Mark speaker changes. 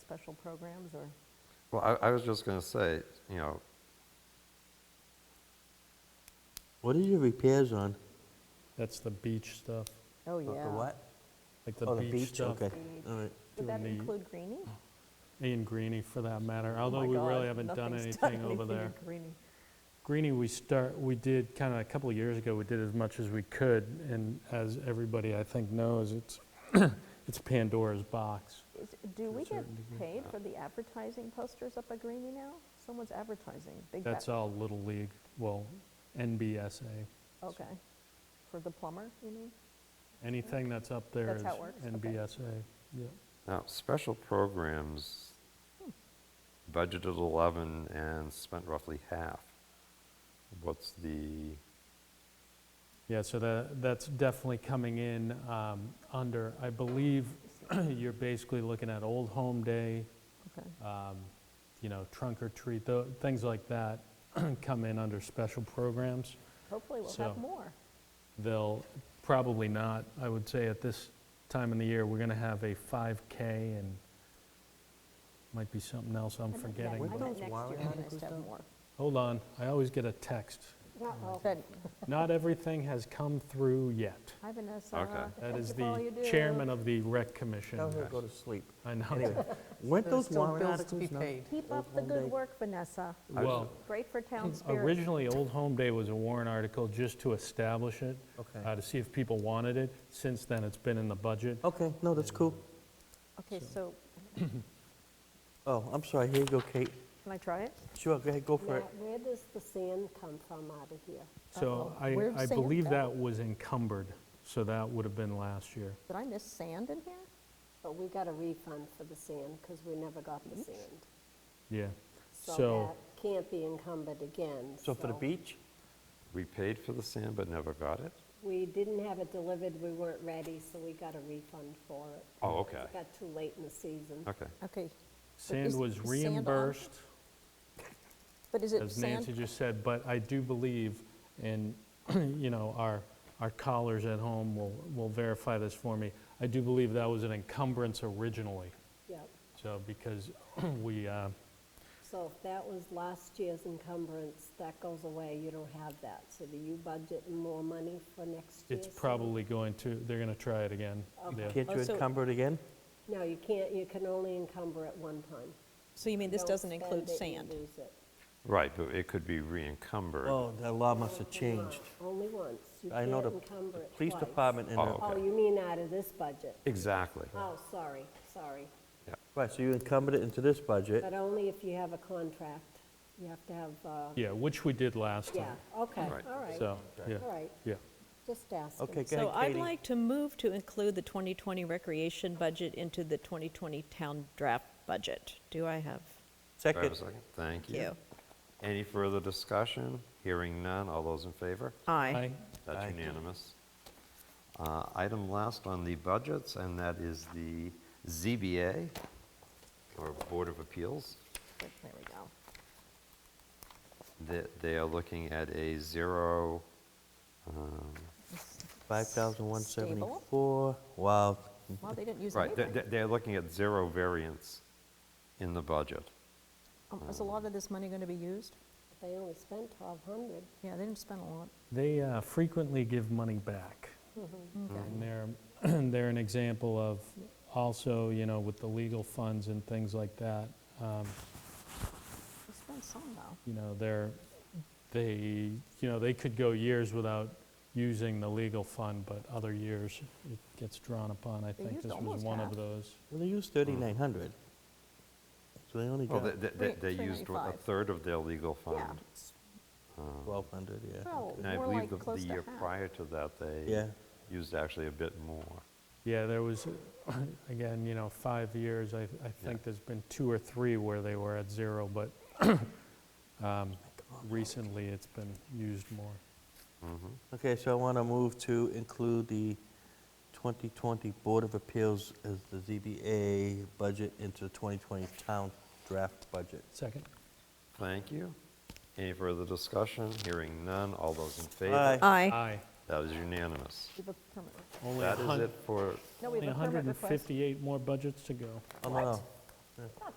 Speaker 1: special programs or?
Speaker 2: Well, I, I was just gonna say, you know,
Speaker 3: What is your repairs on?
Speaker 4: That's the beach stuff,
Speaker 1: Oh,
Speaker 3: The-
Speaker 1: yeah.
Speaker 3: The what?
Speaker 4: like
Speaker 3: Oh,
Speaker 4: the
Speaker 3: the
Speaker 4: beach
Speaker 3: beach,
Speaker 4: stuff.
Speaker 3: okay, all right.
Speaker 1: Would that
Speaker 4: Doing the-
Speaker 1: include greening?
Speaker 4: And Greenie, for that matter,
Speaker 1: Oh my
Speaker 4: although we
Speaker 1: God,
Speaker 4: really haven't done
Speaker 1: nothing's
Speaker 4: anything over
Speaker 1: in
Speaker 4: there.
Speaker 1: greening.
Speaker 4: Greenie, we start, we did, kind of a couple of years ago, we did as much as we could, and as everybody, I think, knows, it's, it's Pandora's box.
Speaker 1: Is- Do we get
Speaker 4: certain degree.
Speaker 1: paid for the advertising posters up at Greenie now? Someone's advertising. Big
Speaker 4: That's
Speaker 1: ba-
Speaker 4: all Little League, well, NBSA.
Speaker 1: Okay. For the plumber, you mean?
Speaker 4: Anything that's up there
Speaker 1: That's
Speaker 4: is
Speaker 1: how it works, okay.
Speaker 4: NBSA, yeah.
Speaker 2: now, special programs budgeted 11 and spent roughly half. What's the,
Speaker 4: Yeah, so that, that's definitely coming in um, under, I believe, you're basically looking at Old Home Day,
Speaker 1: Okay.
Speaker 4: um, you know, trunk or treat, tho- things like that come in under special programs.
Speaker 1: Hopefully we'll have
Speaker 4: So-
Speaker 1: more.
Speaker 4: They'll, probably not, I would say at this time in the year, we're going to have a 5K and might be something else
Speaker 1: I
Speaker 4: I'm
Speaker 1: meant ne-
Speaker 4: forgetting.
Speaker 1: I
Speaker 3: Weren't
Speaker 1: meant
Speaker 3: those
Speaker 1: next
Speaker 3: warrant
Speaker 1: year when I
Speaker 3: articles
Speaker 1: said
Speaker 3: done?
Speaker 1: more.
Speaker 4: Hold on, I always get a text.
Speaker 1: Then
Speaker 4: Not everything has come through yet.
Speaker 1: Hi, Vanessa.
Speaker 2: Okay.
Speaker 4: That is
Speaker 1: Thank you for all
Speaker 4: the
Speaker 1: you do.
Speaker 4: chairman of the rec commission.
Speaker 3: Tell her to go to sleep.
Speaker 4: I know.
Speaker 3: Anyway, weren't
Speaker 5: There's
Speaker 3: those
Speaker 5: still
Speaker 3: warrant
Speaker 5: bills to be
Speaker 3: articles? not-
Speaker 5: paid.
Speaker 1: Keep
Speaker 3: Old
Speaker 1: up the
Speaker 3: Home
Speaker 1: good
Speaker 3: Day.
Speaker 1: work, Vanessa.
Speaker 4: Well,
Speaker 1: Great for town spirit.
Speaker 4: originally, Old Home Day was a warrant article just to establish it,
Speaker 3: Okay.
Speaker 4: uh, to see if people wanted it. Since then, it's been in the budget.
Speaker 1: Oh.
Speaker 3: Okay, no, that's cool.
Speaker 1: Okay, so
Speaker 3: Oh, I'm sorry, here you go, Kate.
Speaker 1: can I try it?
Speaker 3: Sure, go ahead, go for it.
Speaker 6: Matt, where does the sand come from out of here?
Speaker 4: So I,
Speaker 1: where's
Speaker 4: I
Speaker 1: sand
Speaker 4: believe
Speaker 1: at?
Speaker 4: that was encumbered, so that would have been last year.
Speaker 1: Did I miss sand in here?
Speaker 6: But we got a refund for the sand because we never got the sand.
Speaker 4: Yeah.
Speaker 6: So
Speaker 4: So,
Speaker 6: that can't be encumbered again.
Speaker 3: So for the beach?
Speaker 2: we paid for the sand but never got it?
Speaker 6: We didn't have it delivered, we weren't ready, so we got a refund for it.
Speaker 2: Oh, okay,
Speaker 6: It got too late in the season.
Speaker 2: okay.
Speaker 1: Okay, is
Speaker 4: sand was
Speaker 1: sand on?
Speaker 4: reimbursed,
Speaker 1: but is it
Speaker 4: as Nancy
Speaker 1: sand?
Speaker 4: just said, but I do believe, and, you know, our, our callers at home will, will verify this for me, I do believe that was an encumbrance originally.
Speaker 6: Yep.
Speaker 4: So because we, uh,
Speaker 6: So if that was last year's encumbrance, that goes away, you don't have that. So do you budget more money for next year's?
Speaker 4: it's probably going to, they're going to try it again. Yeah.
Speaker 3: Can't
Speaker 1: Oh,
Speaker 3: you
Speaker 1: so-
Speaker 3: encumber it again?
Speaker 6: No, you can't, you can only encumber it one time.
Speaker 1: So you mean this
Speaker 6: Don't
Speaker 1: doesn't
Speaker 6: spend
Speaker 1: include
Speaker 6: it, you
Speaker 1: sand?
Speaker 6: lose it.
Speaker 2: Right, but it could be re-encumbered.
Speaker 3: Oh, the law must have changed.
Speaker 6: Only once. You
Speaker 3: I
Speaker 6: can't
Speaker 3: know the
Speaker 6: encumber
Speaker 3: the
Speaker 6: it
Speaker 3: police
Speaker 6: twice.
Speaker 3: department and
Speaker 2: Oh.
Speaker 3: the,
Speaker 6: Oh,
Speaker 2: Okay.
Speaker 6: you mean out of this budget?
Speaker 2: Exactly.
Speaker 6: Oh, sorry, sorry.
Speaker 3: right, so you encumbered it into this budget.
Speaker 6: But only if you have a contract. You have to have, uh,
Speaker 4: Yeah, which we did last
Speaker 6: yeah,
Speaker 4: time.
Speaker 6: okay,
Speaker 2: Right.
Speaker 6: all right.
Speaker 4: So, yeah,
Speaker 6: All right,
Speaker 4: yeah.
Speaker 6: just asking.
Speaker 3: Okay, go
Speaker 7: So
Speaker 3: ahead,
Speaker 7: I'd
Speaker 3: Katie.
Speaker 7: like to move to include the 2020 recreation budget into the 2020 town draft budget. Do I have?
Speaker 2: Do I have a
Speaker 3: Second,
Speaker 2: second? Thank you.
Speaker 7: you?
Speaker 2: Any further discussion? Hearing none, all those in favor?
Speaker 4: I,
Speaker 2: That's
Speaker 3: Aye.
Speaker 2: unanimous. Uh, Item last on the budgets, and that is the ZBA, or Board of Appeals.
Speaker 1: There we go.
Speaker 2: They- They are looking at a zero, um,
Speaker 3: 5,174. Wow,
Speaker 1: Well, they didn't use
Speaker 2: right, they- they-
Speaker 1: anything.
Speaker 2: they're looking at zero variance in the budget.
Speaker 1: Um, Is a lot of this money going to be used?
Speaker 6: They only spent 1,200.
Speaker 1: Yeah, they didn't spend a lot.
Speaker 4: They uh, frequently give money back.
Speaker 3: Mm-hmm.
Speaker 4: And they're, they're an example of also, you know, with the legal funds and things like that, um,
Speaker 1: They spent some, though.
Speaker 4: you know, they're, they, you know, they could go years without using the legal fund, but other years it gets drawn upon. I
Speaker 1: They
Speaker 4: think
Speaker 1: used
Speaker 4: this was
Speaker 1: almost
Speaker 4: one
Speaker 1: half.
Speaker 4: of those.
Speaker 3: well, they used 3,900. So they only
Speaker 2: Mm. Well,
Speaker 3: got
Speaker 2: they- they- they they
Speaker 1: Three-
Speaker 2: used what, a
Speaker 1: 395.
Speaker 2: third of their legal
Speaker 1: Yeah,
Speaker 2: fund.
Speaker 3: 1,200, yeah.
Speaker 1: well,
Speaker 2: And I
Speaker 1: more
Speaker 2: believe
Speaker 1: like
Speaker 2: the- the
Speaker 1: close to
Speaker 2: year
Speaker 1: half.
Speaker 2: prior to that, they
Speaker 3: Yeah.
Speaker 2: used actually a bit more.
Speaker 4: Yeah, there was, again, you know, five years, I, I think there's been two or three where they were at zero, but um, recently it's been used more.
Speaker 3: Okay, so I want to move to include the 2020 Board of Appeals as the ZBA budget into the 2020 town draft budget.
Speaker 4: Second.
Speaker 2: Thank you. Any further discussion? Hearing none, all those in favor?
Speaker 3: Aye.
Speaker 7: Aye.
Speaker 4: Aye.
Speaker 2: That is unanimous.
Speaker 1: We have a permit.
Speaker 4: Only a
Speaker 2: That is
Speaker 4: hun-
Speaker 2: it for,
Speaker 1: No, we
Speaker 4: only
Speaker 1: have a permit request.
Speaker 4: 158 more budgets to go.
Speaker 3: Oh, no, no.